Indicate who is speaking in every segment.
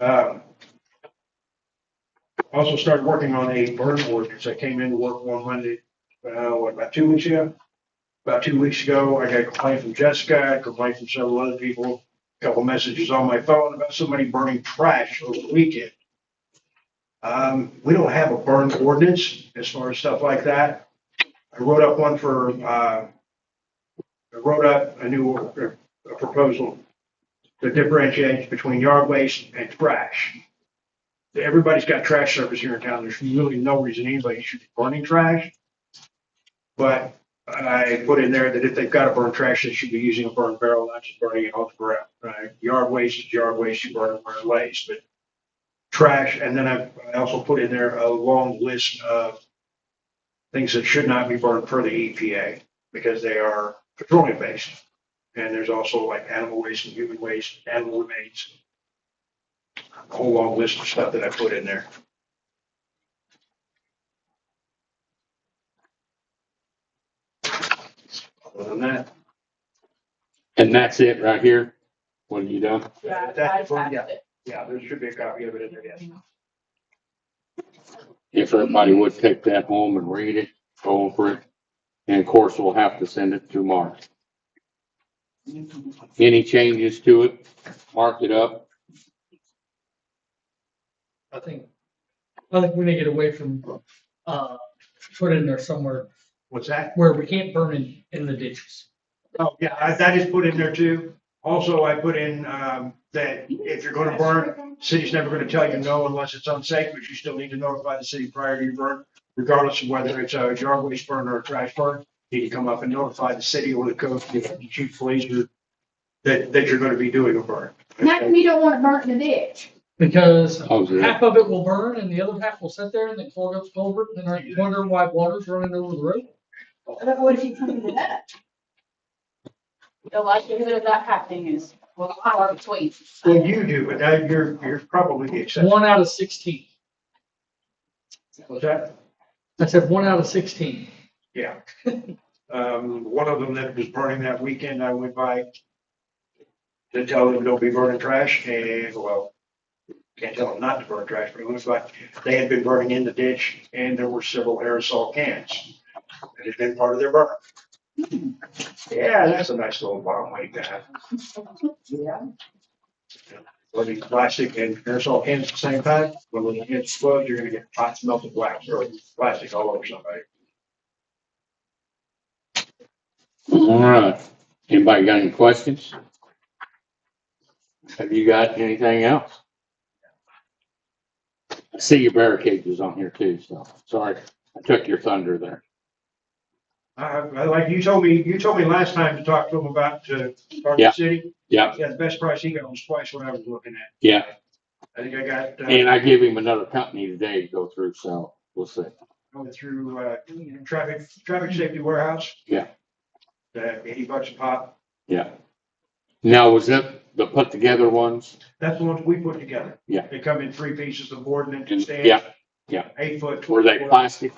Speaker 1: Um, Also started working on a burn ordinance. I came into work one Monday, uh, what, about two weeks ago? About two weeks ago, I got a complaint from Jessica, a complaint from several other people, a couple messages on my phone about somebody burning trash over the weekend. Um, we don't have a burn ordinance as far as stuff like that. I wrote up one for, uh, I wrote up a new, or- a proposal to differentiate between yard waste and trash. Everybody's got trash service here in town. There's really no reason anybody should be burning trash. But I put in there that if they've got to burn trash, they should be using a burn barrel, not just burning it off the ground, right? Yard waste is yard waste, you burn it where it lays, but trash, and then I I also put in there a long list of things that should not be burned for the EPA because they are petroleum based. And there's also like animal waste and human waste, animal remains. A whole long list of stuff that I put in there. Other than that,
Speaker 2: And that's it right here? What have you done?
Speaker 1: Yeah,
Speaker 3: I
Speaker 1: that's one, yeah.
Speaker 3: attached it.
Speaker 1: yeah, there should be a copy of it in there, yes.
Speaker 2: If everybody would take that home and read it, go over it. And of course, we'll have to send it to Mark. Any changes to it, mark it up.
Speaker 4: I think, I think we need to get away from, uh, put in there somewhere
Speaker 1: What's that?
Speaker 4: where we can't burn in, in the ditches.
Speaker 1: Oh, yeah, I- that is put in there too. Also, I put in, um, that if you're gonna burn, city's never gonna tell you no unless it's unsafe, but you still need to notify the city prior to your burn. Regardless of whether it's a yard waste burn or a trash burn, you need to come up and notify the city or the code, the chief police, or- that, that you're gonna be doing a burn.
Speaker 5: Not, we don't want it burnt in the ditch.
Speaker 4: Because
Speaker 2: Oh, is it?
Speaker 4: half of it will burn and the other half will sit there and then clog up the culvert and then I wonder why water's running over the road.
Speaker 5: But what if you come into that?
Speaker 3: The likelihood of that happening is, well, far between.
Speaker 1: Well, you do, but that, you're, you're probably the
Speaker 4: It's
Speaker 1: exception.
Speaker 4: one out of sixteen.
Speaker 1: Was that,
Speaker 4: I said one out of sixteen.
Speaker 1: yeah. Um, one of them that was burning that weekend, I went by to tell them don't be burning trash and, well, can't tell them not to burn trash, but it was like they had been burning in the ditch and there were several aerosol cans. that had been part of their burn. Yeah, that's a nice little bomb like that. Let me plastic and aerosol cans at the same time. When it gets exploded, you're gonna get hot melted wax or plastic all over somebody.
Speaker 2: All right. Anybody got any questions? Have you got anything else? I see your barricade was on here too, so sorry. I took your thunder there.
Speaker 1: Uh, like you told me, you told me last time to talk to him about, uh,
Speaker 2: Yeah.
Speaker 1: Garden City.
Speaker 2: Yeah.
Speaker 1: Yeah, the best price he got was twice what I was looking at.
Speaker 2: Yeah.
Speaker 1: I think I got, uh,
Speaker 2: And I gave him another company today to go through, so we'll see.
Speaker 1: going through, uh, traffic, traffic safety warehouse.
Speaker 2: Yeah.
Speaker 1: Uh, eighty bucks a pop.
Speaker 2: Now, was it the put together ones?
Speaker 1: That's the ones we put together.
Speaker 2: Yeah.
Speaker 1: They come in three pieces, the board and then two stands.
Speaker 2: Yeah, yeah.
Speaker 1: Eight foot.
Speaker 2: Were they
Speaker 1: 12 foot.
Speaker 2: plastic?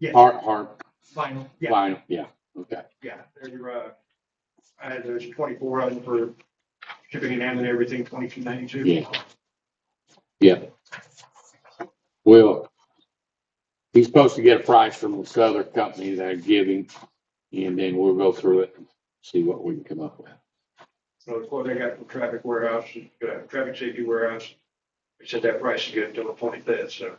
Speaker 1: Yes.
Speaker 2: Hard, hard,
Speaker 4: Final.
Speaker 1: Yeah.
Speaker 2: vinyl, yeah, okay.
Speaker 1: Yeah, they're, uh, I had those twenty-four of them for shipping and handling, everything, twenty-two ninety-two.
Speaker 2: Yeah. Well, he's supposed to get a price from this other company that I give him, and then we'll go through it and see what we can come up with.
Speaker 1: So of course, I got from traffic warehouse, uh, traffic safety warehouse. They said that price is good until the twenty-fifth, so.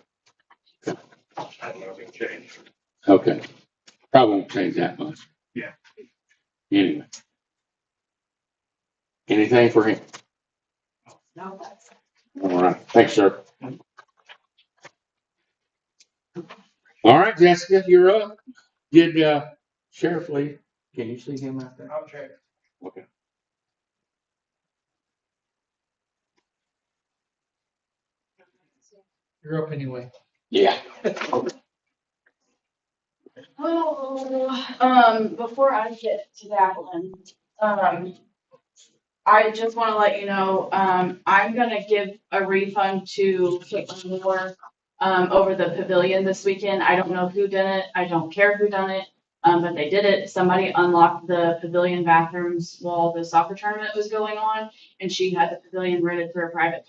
Speaker 1: I don't know if it changed.
Speaker 2: Okay, probably won't change that much.
Speaker 1: Yeah.
Speaker 2: Anyway. Anything for him?
Speaker 3: No.
Speaker 2: All right, thanks, sir. All right, Jessica, you're up. Did, uh, Sheriff Lee, can you see him out there?
Speaker 1: I'll check.
Speaker 2: Okay.
Speaker 4: You're up anyway.
Speaker 2: Yeah.
Speaker 3: Oh, um, before I get to that one, um, I just wanna let you know, um, I'm gonna give a refund to Caitlin Moore um, over the pavilion this weekend. I don't know who did it. I don't care who done it. Um, but they did it. Somebody unlocked the pavilion bathrooms while the soccer tournament was going on and she had the pavilion rented for a private